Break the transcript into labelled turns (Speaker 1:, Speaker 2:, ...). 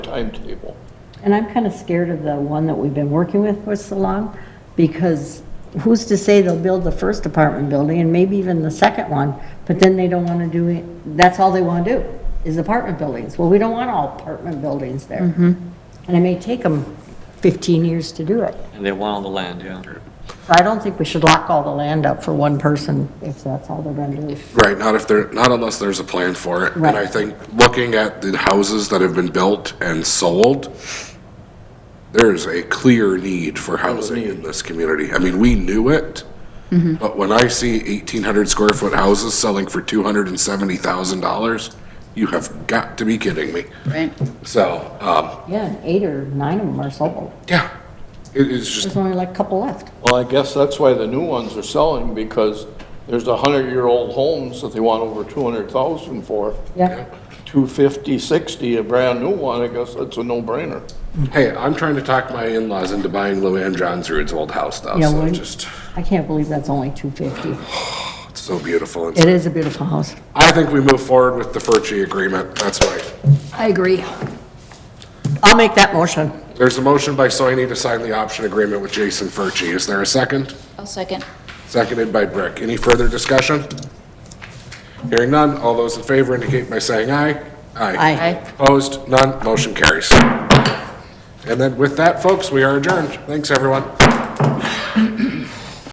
Speaker 1: timetable.
Speaker 2: And I'm kind of scared of the one that we've been working with for so long, because who's to say they'll build the first apartment building and maybe even the second one, but then they don't want to do it, that's all they want to do, is apartment buildings. Well, we don't want all apartment buildings there. And it may take them 15 years to do it.
Speaker 3: And they want all the land, yeah.
Speaker 2: So I don't think we should lock all the land up for one person, if that's all they're going to do.
Speaker 4: Right, not if there, not unless there's a plan for it. And
Speaker 2: Right.
Speaker 4: I think, looking at the houses that have been built and sold, there is a clear need for housing in this community. I mean, we knew it,
Speaker 2: Mm-hmm.
Speaker 4: but when I see 1,800 square foot houses selling for $270,000, you have got to be kidding me.
Speaker 5: Right.
Speaker 4: So, um,
Speaker 2: Yeah, and eight or nine of them are sold.
Speaker 4: yeah, it is just,
Speaker 2: There's only like a couple left.
Speaker 1: Well, I guess that's why the new ones are selling, because there's a hundred-year-old homes that they want over two hundred thousand for.
Speaker 2: Yeah.
Speaker 1: Two fifty, sixty, a brand-new one, I guess that's a no-brainer.
Speaker 4: hey, I'm trying to talk my in-laws into buying Luann John Root's old house though,
Speaker 2: Yeah,
Speaker 4: so
Speaker 2: when-
Speaker 4: just,
Speaker 2: I can't believe that's only 250.
Speaker 4: it's so beautiful. and
Speaker 2: It is a beautiful house.
Speaker 4: I think we move forward with the Furchy agreement, that's why.
Speaker 2: I agree. I'll make that motion.
Speaker 4: There's a motion by Soini to sign the option agreement with Jason Furchy. Is there a second?
Speaker 5: I'll second.
Speaker 4: Seconded by Brick. Any further discussion? Hearing none, all those in favor indicate by saying aye.
Speaker 2: Aye.
Speaker 5: Aye.
Speaker 4: Opposed, none, motion carries. And then with that, folks, we are adjourned. Thanks, everyone.